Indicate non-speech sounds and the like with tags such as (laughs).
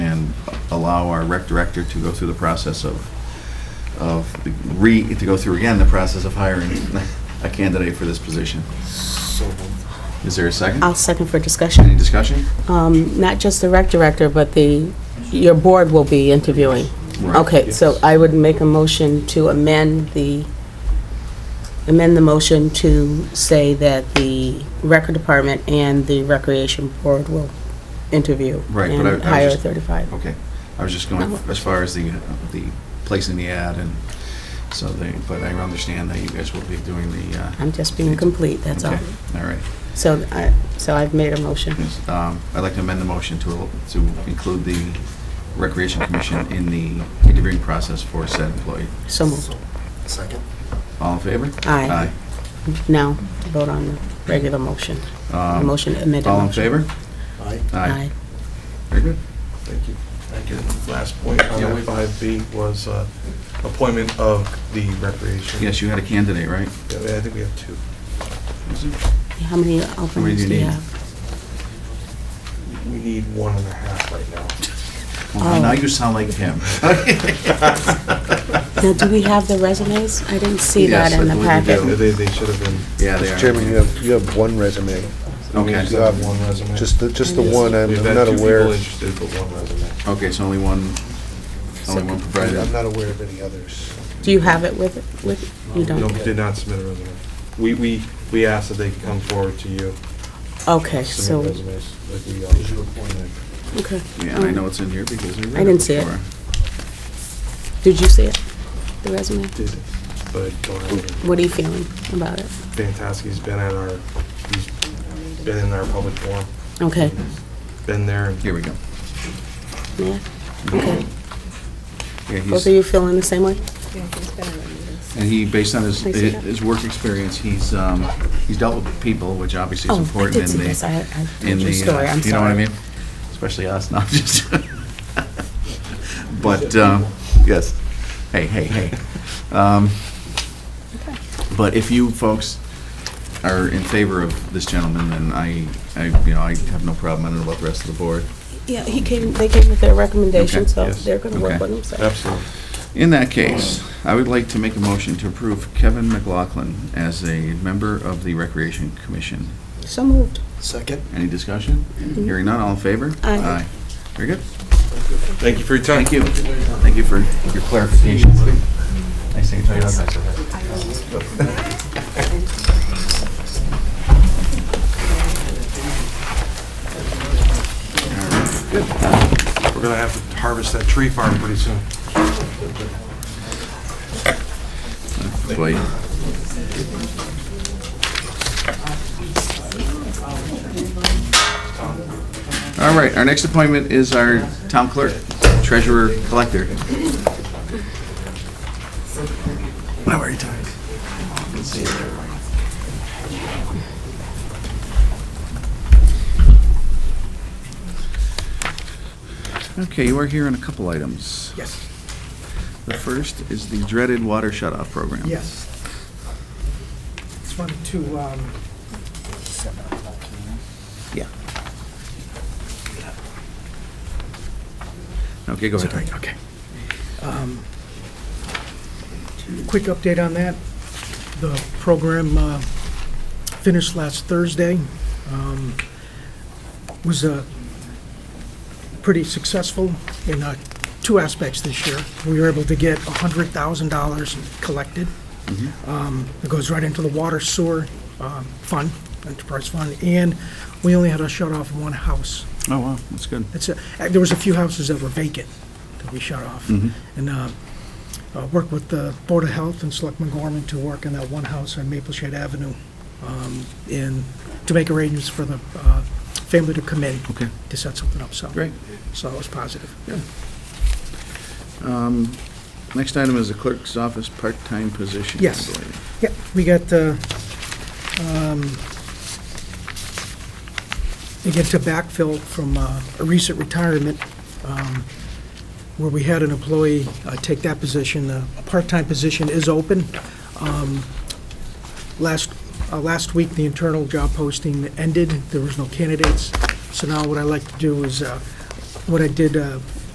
allow our rec director to go through the process of, of, the re, to go through again the process of hiring (laughs) a candidate for this position. So moved. Is there a second? I'll second for Any discussion. discussion? Um, Not just the rec director, but the, your board will be interviewing. Right. Okay, so I would make a motion to amend the, amend the motion to say that the record department and the recreation board will interview Right, but I- I and was hire Uh-huh. just- 35. Okay, I was just going as far as the, uh, the placing the ad and so they, but I understand that you guys will be doing the, uh. I'm just being complete, that's all. okay, All right. So I, so I've made a motion. Yes, um, I'd like to amend the motion to, to include the Recreation Commission in the interviewing process for said employee. So moved. So- Second. All in favor? Aye. Now, vote on the regular motion. Aye. Um, Motion, amended All in motion. favor? Aye. Aye. Very good. Thank you. Thank you. Last point Oh, on Yeah. 5B was uh, appointment of the recreation. Yes, you had a candidate, right? Yeah, I think we have two. How many many do openings you do you need? have? We need one and a half right (laughs) now. Well, Now Oh. you sound like him. (laughs) Now, do we have the resumes? I didn't see that Yes, I in the believe you packet. do. They, they- they should have been, Yeah, they are. Chairman, you have, you have one resume. you Okay, Yeah. have one resume. Just, the just the one, I'm We've I'm had not two people aware, interested, but one resume. okay, so only one, only one I'm provided. not aware of any others. Do you have it with, with, you No, don't? we did not submit a resume. We, we, we asked that they could come forward to you, Okay, so, submit resumes, like we uh, Is always you do. appointed? okay. Yeah, and I know it's in here because I read it Mm. I didn't see it. before. Did you see it, the resume? Did, but I don't have any. What are you feeling about it? Fantastic, he's been at our, he's been in our public forum, Okay, been there and Here we go. yeah, okay. Yeah, Both he's, of you feeling the same way? Yeah, it's been in the meetings. and he, based on his, Can I see that? his work experience, he's, um, he's dealt with people, which obviously is Oh, I important in did the. see this, I, I in told the, your story, uh, I'm sorry. you know what I mean? Especially us, not just. (laughs) But, um, yes, hey, hey, hey. Um, Okay. But if you folks are in favor of this gentleman, then I, I, you know, I have no problem, I don't know about the rest of the board. Yeah, he came, they came with their recommendation, Okay, so yes, they're gonna work okay. with them, so. Absolutely. In that case, I would like to make a motion to approve Kevin McLaughlin as a member of the Recreation Commission. So moved. Second. Any discussion? Hearing none, all in favor? Aye. Very good. Thank you for your time. Thank you. Thank you for your clarification. Nice to meet you. We're gonna have to harvest that tree farm pretty soon. Wait. All right, our next appointment is our town clerk, treasurer, collector. I'm very tired. Okay, you are here on a couple items. Yes. The first is the dreaded water shut-off program. Yes. Just wanted to, um, Yeah. Okay, go ahead. okay. Um, Quick update on that. The program uh, finished last Thursday. Um, Was uh, pretty successful in uh, two aspects this year. We were able to get $100,000 collected. Um, It goes right into the water sewer um, fund, enterprise fund, and we only had to shut off one house. Oh, wow, that's good. It's, a- uh, there was a few houses that were vacant that we shut off. Mm-hmm. And uh, uh, worked with the Board of Health and Selectman Gorman to work on that one house on Maple Shade Avenue um, and to make arrangements for the uh, family to come in Okay. to set something up, so. Great. So it was positive. Um, Next item is the clerk's office part-time position. I Yes. believe. Yeah, we got, uh, um, again, to backfill from uh, a recent retirement, um, where we had an employee uh, take that position. Uh, A part-time position is open. Um, Last, uh, last week, the internal job posting ended. There was no candidates. So now what I like to do is, uh, what I did uh,